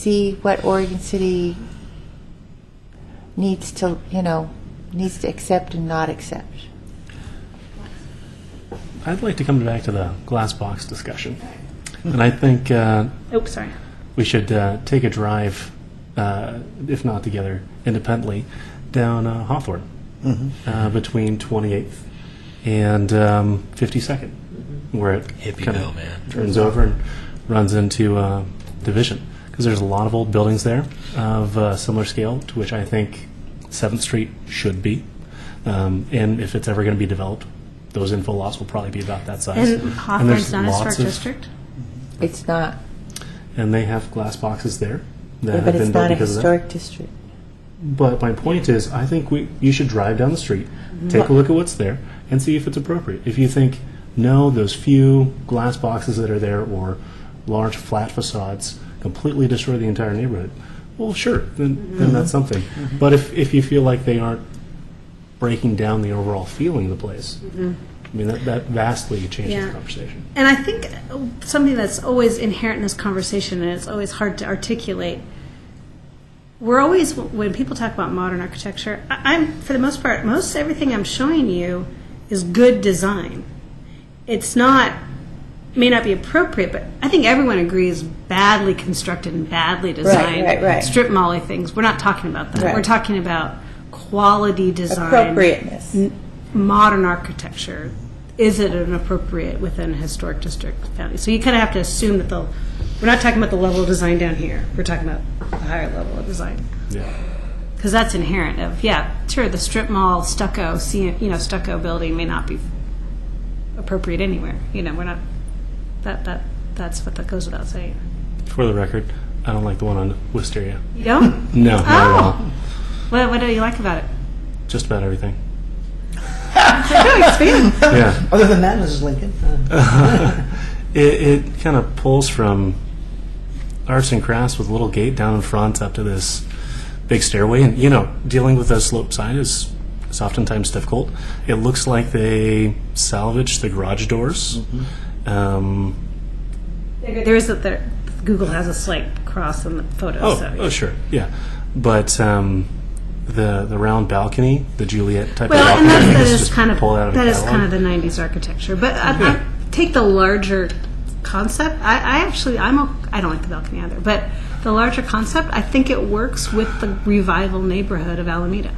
see what Oregon City needs to, you know, needs to accept and not accept. I'd like to come back to the glass box discussion. And I think uh, Oh, Oops, sorry. we should uh, take a drive, uh, if not together, independently, down uh, Hawthorne uh, between 28th and um, 52nd, where it Hippie kinda Bill, man. turns over and runs into uh, Division. Because there's a lot of old buildings there of uh, similar scale to which I think 7th Street should be. Um, and if it's ever going to be developed, those info lots will probably be about that size. And there's Hawthorne's not a lots historic of- district? It's not, and they have glass boxes there that have but been it's built not a because of that. historic district. But my point is, I think we you should drive down the street, take Mm-hmm. a look at what's there, and see if it's appropriate. If you think no, those few glass boxes that are there or large flat facades completely destroy the entire neighborhood, well, sure, then, then Mm-hmm. that's something. But if, if you feel like they aren't breaking down the overall feeling of the place, Mm-hmm. I mean, that, that vastly changes Yeah. the conversation. And I think uh, something that's always inherent in this conversation, and it's always hard to articulate. We're always when people talk about modern architecture. I- I'm for the most part, most everything I'm showing you is good design. It's not may not be appropriate, but I think everyone agrees badly constructed and badly designed right, right. strip molly things. We're not talking about that. Right. We're talking about quality design Appropriateness. modern architecture, is it an appropriate within a historic district boundary? So you kind of have to assume that the, we're not talking about the level of design down here. We're talking about the higher level of design. Yeah. Because that's inherent of, yeah, sure, the strip mall stucco, ce- you know, stucco building may not be appropriate anywhere. You know, we're not, that, that, that's what that goes without saying. For the record, I don't like the one on Wisteria. You don't? No, not at all. Oh. What, what do you like about it? Just about everything. yeah, Other than that, Mrs. Lincoln, uh, it, it kind of pulls from arts and crafts with a little gate down in front up to this big stairway, and you know, dealing with a slope side is is oftentimes difficult. It looks like they salvaged the garage doors. Mm-hmm. Um, There there is a, there, Google has a slight cross in the photo. Oh, so. oh, sure, yeah. But um, the the round balcony, the Juliet type Well, of balcony, and that's, that is is just kind of pulled out of a that is catalog. kind of the '90s architecture. But I, Yeah. I take the larger concept. I, I actually I'm o- I don't like the balcony either, but the larger concept I think it works with the revival neighborhood of Alameda.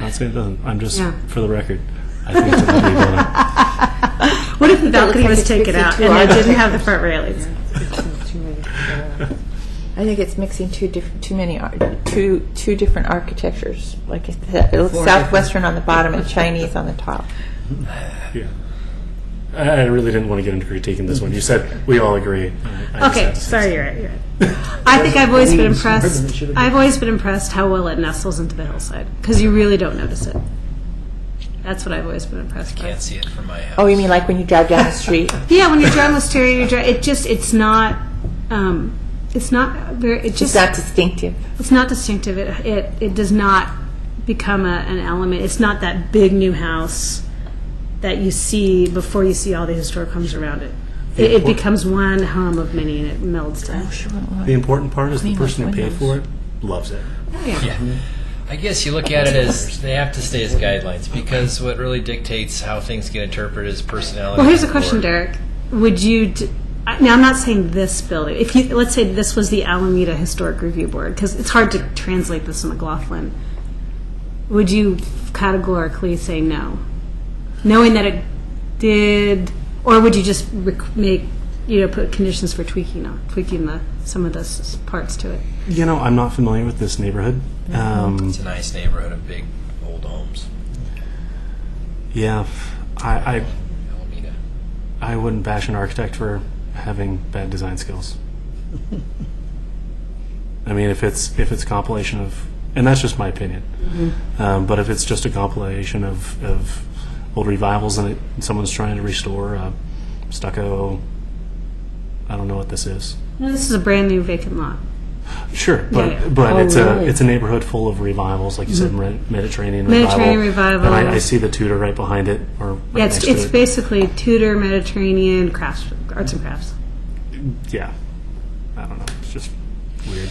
Not saying it doesn't. I'm just Yeah. for the record. I think it's a lovely building. What if the balcony like was it's taken mixing out two and it didn't have the front railings? I think it's mixing two different, too many, ar- two, two different architectures. Like it's it looks southwestern on the bottom and Chinese on the top. Yeah. I I really didn't want to get into critiquing this one. You said we all agree. I- I just Okay, had to say sorry, you're right. You're right. I think I've always been Please, Ruben, it impressed. should have been- I've always been impressed how well it nestles into the hillside because you really don't notice it. That's what I've always been impressed by. Can't see it from my house. Oh, you mean like when you drive down the street? Yeah, when you're drawing wisteria, you're drawing, it just it's not um, it's not very it It's just not distinctive. it's not distinctive. It it, it does not become a, an element. It's not that big new house that you see before you see all the historic homes around it. It, it becomes one home of many, and it melds down. The important part is the Clean those person who paid for it loves it. I guess you look at it as they have to stay as guidelines because what really dictates how things get interpreted is personality. Well, here's a or- question, Derek. Would you? D- I- now, I'm not saying this building. If you let's say this was the Alameda Historic Review Board, because it's hard to translate this in McLaughlin. Would you categorically say no, knowing that it did, or would you just rec- make you know put conditions for tweaking on tweaking the some of those s- parts to it? You know, I'm not familiar with this neighborhood. Um, It's a nice neighborhood of big old homes. yeah, I, Alameda. I I wouldn't bash an architect for having bad design skills. I mean, if it's if it's compilation of, and that's just my opinion. Mm-hmm. Um, but if it's just a compilation of, of old revivals and, it, and someone's trying to restore a stucco, I don't know what this is. No, this is a brand new vacant lot. Sure, but Yeah, yeah. but Oh, it's really? a it's a neighborhood full of revivals, like you said, Med- Mediterranean, Mediterranean revival. revival. And I, I see the Tudor right behind it, or right Yeah, next it's, it's to it. basically Tudor Mediterranean crafts, arts and crafts. yeah. I don't know. It's just weird.